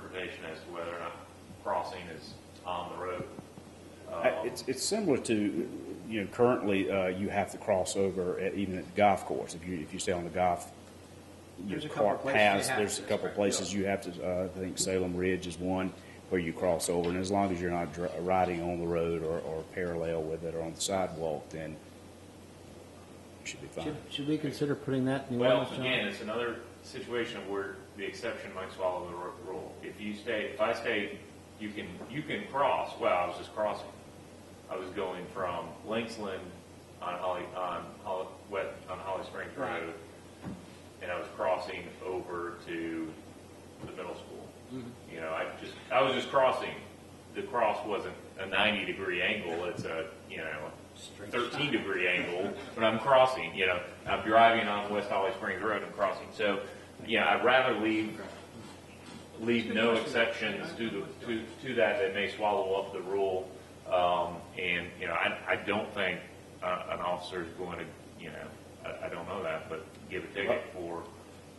determination as to whether or not crossing is on the road. I- It's, it's similar to, you know, currently, uh, you have to cross over at, even at the golf course. If you, if you stay on the golf, you There's a couple cart places they paths, have there's a to, couple right, places you have to, uh, I think Salem Ridge is one where you cross over. And as long as you're not dri riding on the road or, or parallel with it or on the sidewalk, then you should be fine. Should, should we consider putting that in the Well, ordinance, John? again, it's another situation where the exception might swallow the ru- rule. If you stay, if I stay, you can, you can cross, well, I was just crossing. I was going from Linksland on Holly, on Holly, west, on Holly Springs Right. Road, and I was crossing over to the middle school. You know, I just, I was just crossing. The cross wasn't a ninety degree angle, it's a, you know, thirteen degree angle, but I'm crossing, you know, I'm driving on West Holly Springs Road, I'm crossing. So, yeah, I'd rather leave, leave no exceptions to the, to, to that that may swallow up the rule. Um, and, you know, I, I don't think, uh, an officer is going to, you know, I, I don't know that, but give a ticket for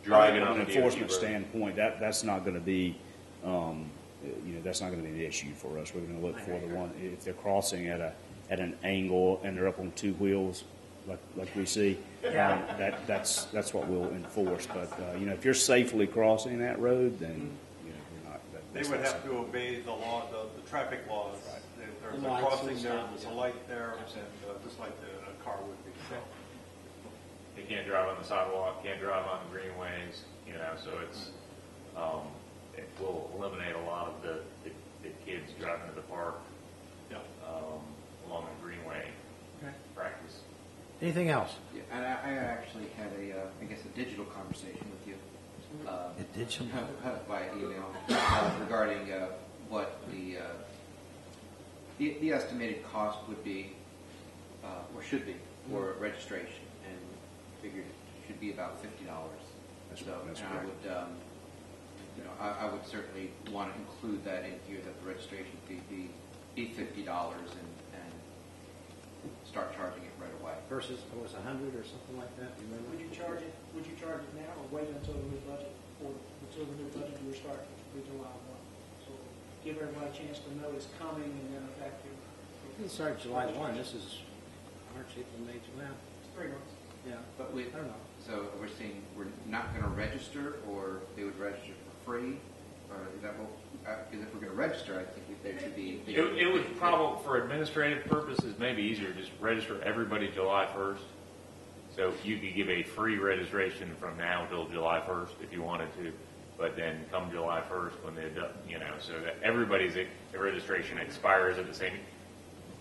driving on From the an DOT enforcement road. standpoint, that, that's not going to be, um, uh, you know, that's not going to be the issue for us. We're going to look for the one, if they're crossing at a, at an angle and they're up on two wheels, like, like we see, um, that, that's, that's what we'll enforce. But, uh, you know, if you're safely crossing that road, then, you know, we're not. that- Mm-hmm. They that's would not have to obey the law, the, the traffic laws. If There's The a lights crossing and there, stuff, there's yeah. a light there, and, uh, just like the, a car would be. So, They can't drive on the sidewalk, can't drive on the greenways, you know, so it's, um, it will eliminate a lot of the, the, the kids driving to the park, Yeah. um, along the greenway Okay. practice. Anything else? Yeah, and I, I actually had a, uh, I guess, a digital conversation with you. uh, It did some- By email uh, regarding uh, what the, uh, the, the estimated cost would be, uh, or should be, for registration, and figured it should be about fifty dollars. That's- So, that's and I correct. would, um, you know, I, I would certainly want to include that in here, that the registration fee be, be fifty dollars and, and start charging it right away. Versus, it was a hundred or something like that, you remember? Would you charge it, would you charge it now or wait until the new budget, or until the new budget year starts, which would be July one? So give everybody a chance to know it's coming and then effective, You can start July one, this is March, April, May, July, it's three months. yeah. But we, I don't know. so we're saying we're not going to register, or they would register for free, or is that what, uh, because if we're going to register, I think we- there should be. It, it would probably, for administrative purposes, maybe easier, just register everybody July first. So you could give a free registration from now till July first if you wanted to, but then come July first when they, do- you know, so that everybody's, e, the registration expires at the same,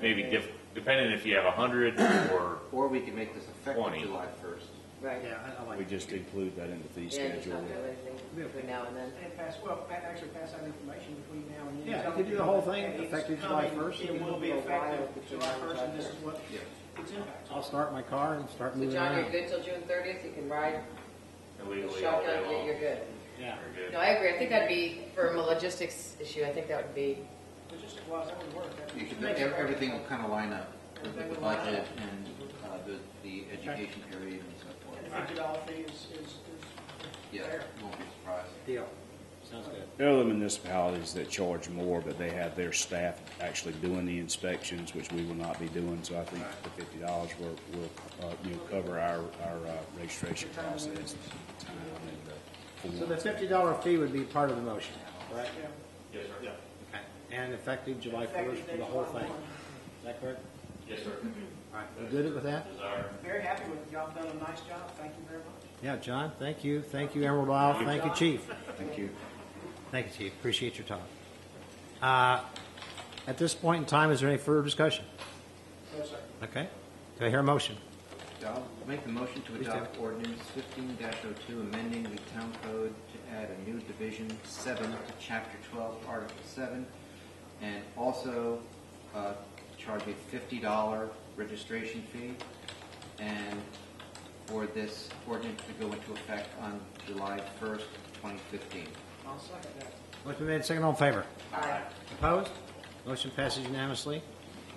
maybe diff, depending if you have a hundred or, Or we can make this effective Twenty. July first. Right. Yeah, I- I something- like. We just include that in the fee Yeah, just schedule. not do anything between now and then. And pass, well, pa- actually pass out information between now and then. Yeah, Tell you could do the people whole that thing it's effective July coming, 1st. It will be Go wild effective between July now and first and this July is what its impact. I'll start my car and start So moving John, you're around. good till June thirtieth, you can ride the illegally all day shotgun, long. you're good. Yeah. You're No, good. I agree, I think that'd be, from a logistics issue, I think that would be, But just, well, that would work. That You could, makes it- everything will kind of line up with Everything the will line budget up. and uh, the, the education period and so And forth. fifty dollar fee is, is, is Yeah, fair. won't be surprised. Deal. Sounds good. There are other municipalities that charge more, but they have their staff actually doing the inspections, which we will not be doing, so I think the fifty dollars will, will, uh, you know, cover our, our, uh, registration process. time and uh, the So the form. fifty dollar fee would be part of the motion, correct? Yeah. Yes, sir. yeah. Okay. And effective July first Effective for date the whole July thing, one. is that correct? Yes, sir. All right, we good with that? Desire. Very happy with it. Y'all done a nice job. Thank you very much. Yeah, John, thank you, thank you Emerald Isle, thank you Chief. Thank you. Thank you, Chief. Appreciate your time. Uh, At this point in time, is there any further discussion? No, sir. Okay. Do I hear a motion? I'll make the motion to Please do. adopt ordinance fifteen 2 amending the town code to add a new division seven to chapter twelve, article seven, and also, uh, charge a fifty dollar registration fee, and for this ordinance to go into effect on July first, twenty fifteen. I'll second that. Motion made, second, all in favor? Aye. Opposed? Motion passes unanimously.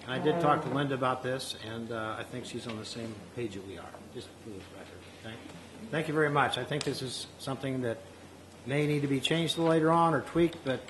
And I did talk to Linda about this, and uh, I think she's on the same page that we are, just for the record. Thank- Thank you very much. I think this is something that may need to be changed later on or tweaked, but